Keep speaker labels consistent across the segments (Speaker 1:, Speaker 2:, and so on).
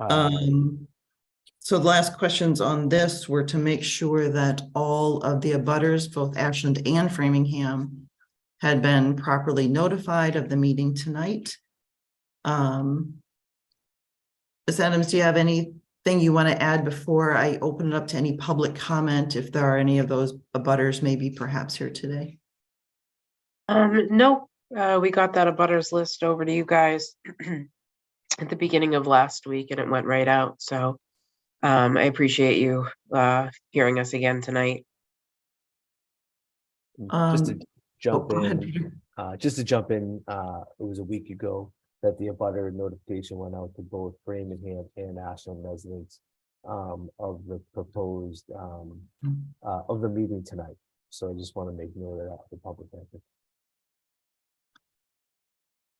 Speaker 1: Um, so the last questions on this were to make sure that all of the abutters, both Ashland and Framingham, had been properly notified of the meeting tonight. Um. Ms. Adams, do you have anything you want to add before I open it up to any public comment? If there are any of those abutters maybe perhaps here today?
Speaker 2: Um, no, uh, we got that abutters list over to you guys at the beginning of last week and it went right out, so um, I appreciate you uh, hearing us again tonight.
Speaker 3: Just to
Speaker 1: Um, Oh,
Speaker 3: jump
Speaker 1: go ahead,
Speaker 3: in,
Speaker 1: Peter.
Speaker 3: uh, just to jump in, uh, it was a week ago that the abutter notification went out to both Framingham and Ashland residents um, of the proposed, um,
Speaker 1: Mm.
Speaker 3: uh, of the meeting tonight. So I just want to make note of that for public record.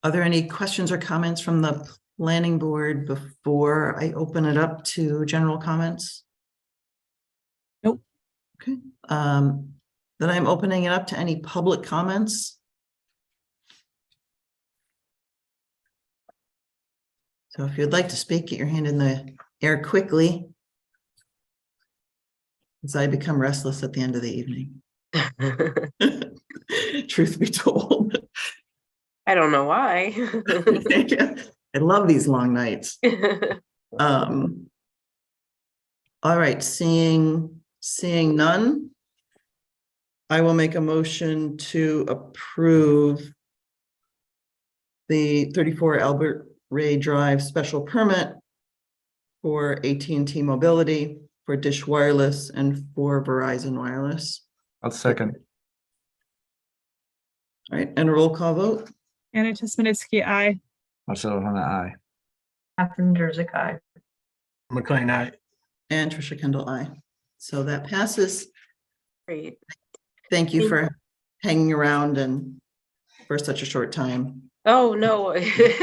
Speaker 1: Are there any questions or comments from the planning board before I open it up to general comments?
Speaker 4: Nope.
Speaker 1: Okay, um, then I'm opening it up to any public comments. So if you'd like to speak, get your hand in the air quickly. As I become restless at the end of the evening,
Speaker 2: I
Speaker 1: truth be told.
Speaker 2: don't know why.
Speaker 1: I love these long nights. Um. All right, seeing, seeing none. I will make a motion to approve. The thirty-four Albert Ray Drive special permit. For AT&T Mobility, for Dish Wireless and for Verizon Wireless.
Speaker 5: I'll second.
Speaker 1: All right, and a roll call vote.
Speaker 4: Anna Tesmanitsky, I.
Speaker 5: Marcelo Hona, aye.
Speaker 6: Catherine Jersey, aye.
Speaker 5: McLean, aye.
Speaker 1: And Trisha Kendall, I. So that passes.
Speaker 2: Great.
Speaker 1: Thank you
Speaker 2: Thank-
Speaker 1: for hanging around and for such a short time.
Speaker 2: Oh,
Speaker 3: Mm.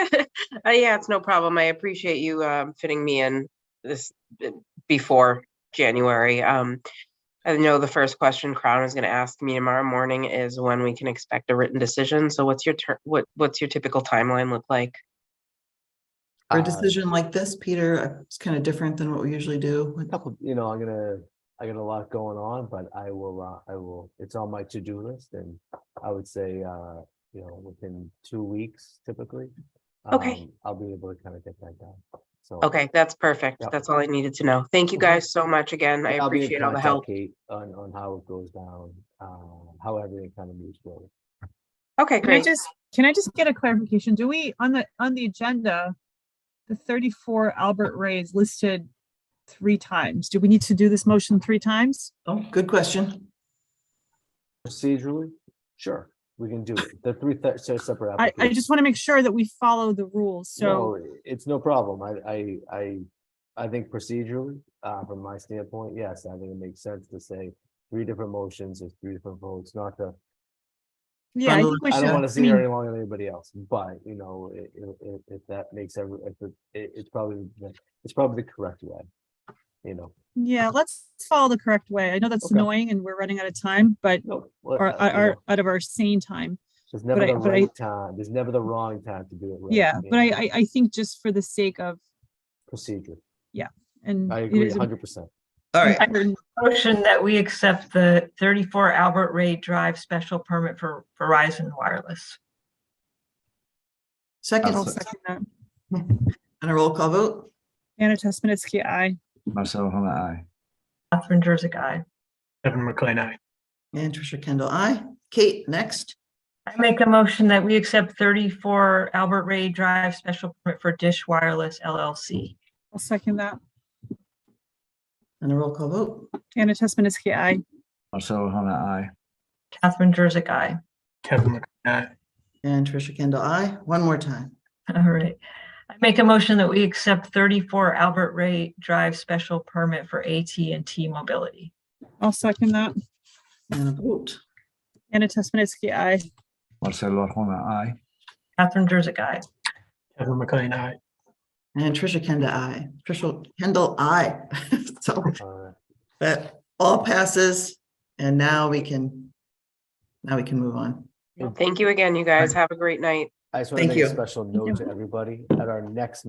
Speaker 2: no. Uh, Yeah, it's no problem. I appreciate you um, fitting me in this uh, before January. Um, I know the first question Crown is going to ask me tomorrow morning is when we can expect a written decision. So what's your, tur- what, what's your typical timeline look like?
Speaker 1: For a
Speaker 3: Uh,
Speaker 1: decision like this, Peter, uh, it's kind of different than what we usually do.
Speaker 3: Couple, you know, I'm gonna, I got a lot going on, but I will, uh, I will, it's on my to-do list and I would say, uh, you know, within two weeks typically.
Speaker 2: Okay.
Speaker 3: um, I'll be able to kind of get that done. So.
Speaker 2: Okay, that's perfect.
Speaker 3: Yep.
Speaker 2: That's all I needed to know. Thank you
Speaker 3: Mhm.
Speaker 2: guys so much again. I
Speaker 3: I'll be in
Speaker 2: appreciate all the
Speaker 3: contact,
Speaker 2: help.
Speaker 3: Kate, On, on how it goes down, uh, how everything kind of moves forward.
Speaker 2: Okay,
Speaker 4: Can I
Speaker 2: great.
Speaker 4: just, can I just get a clarification? Do we, on the, on the agenda, the thirty-four Albert Ray is listed three times. Do we need to do this motion three times?
Speaker 1: Oh, good question.
Speaker 3: Procedurally, sure, we can do it. The three, th- so separate.
Speaker 4: I, I just want to make sure that we follow the rules. So,
Speaker 3: No, It's no problem. I, I, I, I think procedurally, uh, from my standpoint, yes, I think it makes sense to say three different motions or three different votes, not to,
Speaker 4: yeah, I
Speaker 1: Bundle-
Speaker 4: think we
Speaker 3: I don't
Speaker 4: should.
Speaker 3: want
Speaker 4: I
Speaker 3: to see
Speaker 4: mean,
Speaker 3: very long on anybody else, but you know, i- i- i- if that makes every, if it, it- it's probably, the- it's probably the correct way. You know,
Speaker 4: Yeah, let's follow the correct way. I know that's
Speaker 3: Okay.
Speaker 4: annoying and we're running out of time, but,
Speaker 3: no.
Speaker 4: or, or, out of our sane time.
Speaker 3: There's never
Speaker 4: I-
Speaker 3: the
Speaker 4: but I-
Speaker 3: right time. There's never the wrong time to do it. right,
Speaker 4: Yeah,
Speaker 3: you
Speaker 4: but I,
Speaker 3: know,
Speaker 4: I, I think just for the sake of,
Speaker 3: Procedure.
Speaker 4: and.
Speaker 3: I
Speaker 4: it
Speaker 3: agree
Speaker 4: is a-
Speaker 3: hundred percent.
Speaker 1: All right,
Speaker 4: Iron-
Speaker 6: Motion that we accept the 34 Albert Ray Drive special permit for Verizon Wireless.
Speaker 1: second,
Speaker 5: I'll
Speaker 4: I'll
Speaker 5: se-
Speaker 4: second that.
Speaker 1: and a roll call vote.
Speaker 4: Anna Tesmanitsky, aye.
Speaker 5: Marcelo Hona, aye.
Speaker 6: Catherine Jersey, aye.
Speaker 5: Kevin McLean, aye.
Speaker 1: And Trisha Kendall, I. Kate, next.
Speaker 6: I make a motion that we accept 34 Albert Ray Drive special permit for Dish Wireless LLC.
Speaker 4: I'll second that.
Speaker 1: And a roll call vote.
Speaker 4: Anna Tesmanitsky, aye.
Speaker 5: Marcelo Hona, aye.
Speaker 6: Catherine Jersey, aye.
Speaker 5: Kevin McLean, aye.
Speaker 1: And Trisha Kendall, I. One more time.
Speaker 6: All right. I make a motion that we accept 34 Albert Ray Drive special permit for at and T Mobility.
Speaker 4: I'll second that.
Speaker 1: And a vote.
Speaker 4: Anna Tesmanitsky, aye.
Speaker 5: Marcelo Hona, aye.
Speaker 6: Catherine Jersey, aye.
Speaker 5: Kevin McLean, aye.
Speaker 1: And Trisha Kendall, I. Trisha Kendall, I. So
Speaker 3: Uh,
Speaker 1: that all passes and now we can, now we can move on.
Speaker 2: Thank you again, you guys. Have a great night.
Speaker 3: I just want to
Speaker 1: Thank
Speaker 3: make a
Speaker 1: you.
Speaker 3: special
Speaker 4: you.
Speaker 3: note to everybody at our next